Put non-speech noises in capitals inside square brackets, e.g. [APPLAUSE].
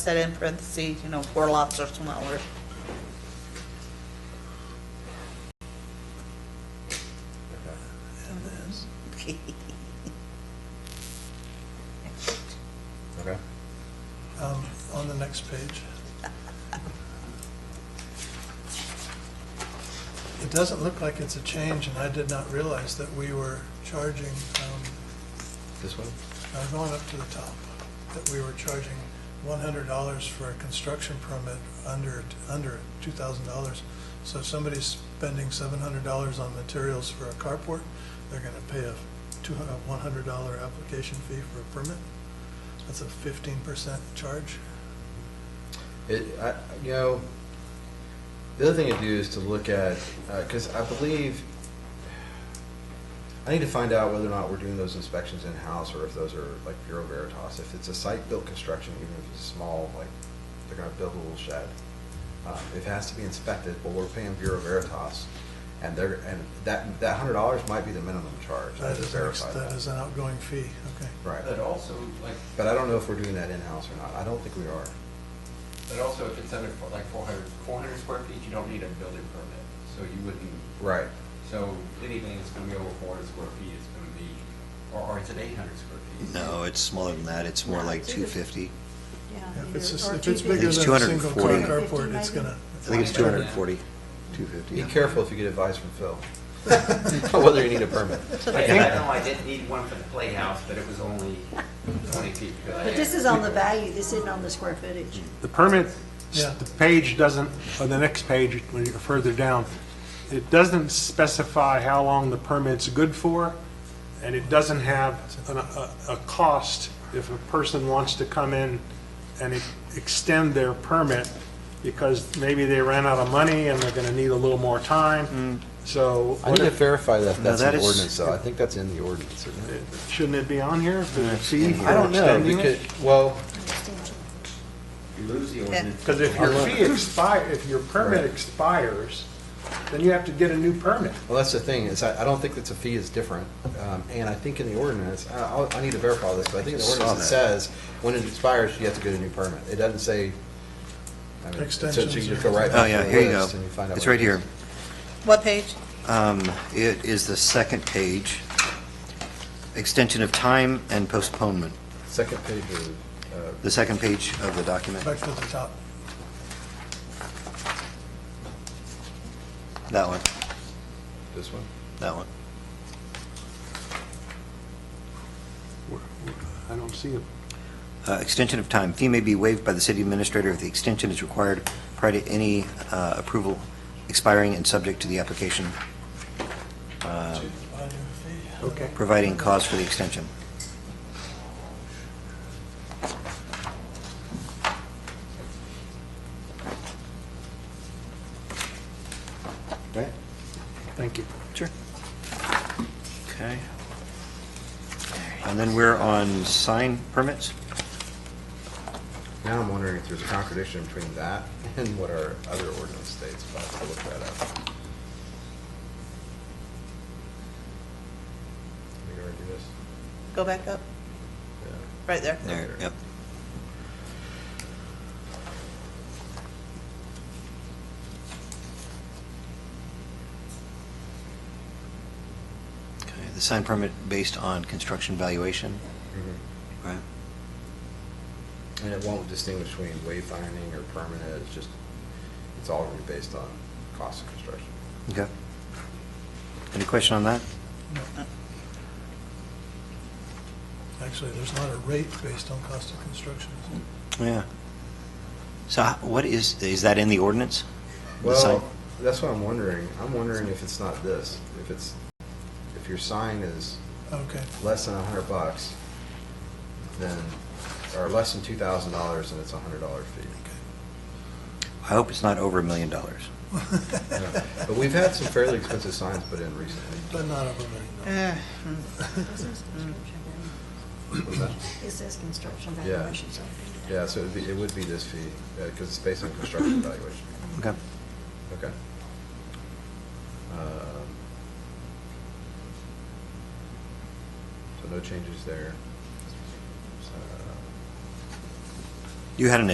said in parentheses, you know, four lots or smaller. Okay. um, on the next page. It doesn't look like it's a change, and I did not realize that we were charging, um, This one? now going up to the top, that we were charging one hundred dollars for a construction permit under, under two thousand dollars. So if somebody's spending seven hundred dollars on materials for a carport, they're gonna pay a two, a one hundred dollar application fee for a permit. That's a fifteen percent charge. It, I, you know, the other thing to do is to look at, because I believe, I need to find out whether or not we're doing those inspections in-house or if those are like Bureau Veritas. If it's a site-built construction, even if it's small, like they're gonna build a little shed, uh, it has to be inspected, but we're paying Bureau Veritas. And they're, and that, that hundred dollars might be the minimum charge. I have That to is, an ex- verify that that. is an outgoing fee, okay. Right. But also, like, But I don't know if we're doing that in-house or not. I don't think we are. but also if it's under, four- like, 400, 400 square feet, you don't need a building permit, so you wouldn't, Right. so anything that's gonna be over 400 square feet is gonna be, or, or it's at 800 square feet. No, it's smaller than that, it's more like two fifty. Yeah, If it's, just- or if it's two bigger It's than a single car 240. carport, it's 250 gonna. I think it's two hundred and forty, two fifty. Be careful if you get advice from Phil, whether you need a permit. Like, I know I didn't need one for the playhouse, but it was only 20 feet. But this is on the value, this isn't on the square footage. The permit, Yeah. the page doesn't, or the next page, when you're further down, it doesn't specify how long the permit's good for, and it doesn't have an- a, a cost if a person wants to come in and e- extend their permit, because maybe they ran out of money and they're gonna need a little more time, so Mm. I need what to if- verify that that's in that the is- ordinance, though. I think that's in the ordinance, isn't it? shouldn't it be on here for the fee I for don't know, extending it? because, well, You lose the ordinance. Because if your fee expire, if your permit expires, then you have to get a new permit. well, that's the thing, is I, I don't think that the fee is different. Um, and I think in the ordinance, I, I'll- I need to verify this, but I think in the Saw ordinance it that. says, when it expires, you have to get a new permit. It doesn't say, I mean, it says Extensions you just or- go right Oh, back yeah, to here the you go. list and you find out. It's what right it is. here. What page? Um, It is the second page. Extension of time and postponement, Second page of, uh, the second page of the document, Back to the top. that one, this one. that one. I don't see it. Uh, Extension of time, fee may be waived by the city administrator if the extension is required prior to any uh, approval expiring and subject to the application Um, Value fee. Okay. providing cause for the extension. Right? Thank you. Sure. Okay. And then we're on sign permits? Now I'm wondering if there's a contradiction between that and what our other ordinance states, but I'll look that up. Are we gonna do this? Go back up, Yeah. right there. There, yep. Okay, the sign permit based on construction valuation, right? And it won't distinguish between wayfinding or permanent, it's just, it's all gonna be based on cost of construction. Okay. Any question on that? Actually, there's not a rate based on cost of construction. is there? Yeah. So h- what is, is that in the ordinance? The sign- Well, that's what I'm wondering. I'm wondering if it's not this, if it's, if your sign is Okay, less than a hundred bucks, then, or less than two thousand dollars, and it's a hundred dollar fee. I hope it's not over a million dollars. Yeah. [LAUGHS] But we've had some fairly expensive signs put in recently. but not over a million dollars. [LAUGHS] Eh, Was that- It says construction Yeah. valuation, so. Yeah, so it'd be, it would be this fee, because it's based on construction valuation. Okay. Okay. Um, So no changes there. So- You had an